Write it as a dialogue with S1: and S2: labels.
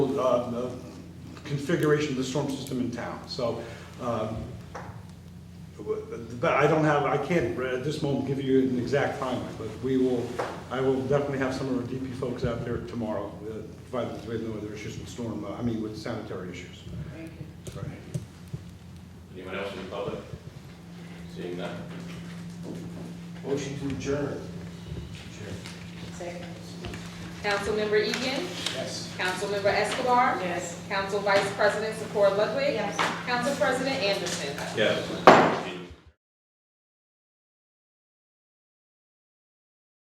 S1: actual uh, the configuration of the storm system in town. So, um, but I don't have, I can't uh, at this moment give you an exact timeline, but we will, I will definitely have some of our DP folks out there tomorrow, uh, provided we have no other issues with storm, uh, I mean with sanitary issues.
S2: Thank you.
S1: Right.
S3: Anyone else in the public? Seeing none.
S4: Motion to adjourn.
S2: Second.
S5: Councilmember Egan.
S4: Yes.
S5: Councilmember Escobar.
S2: Yes.
S5: Council Vice President Secor Ludwig.
S2: Yes.
S5: Council President Anderson.
S3: Yes.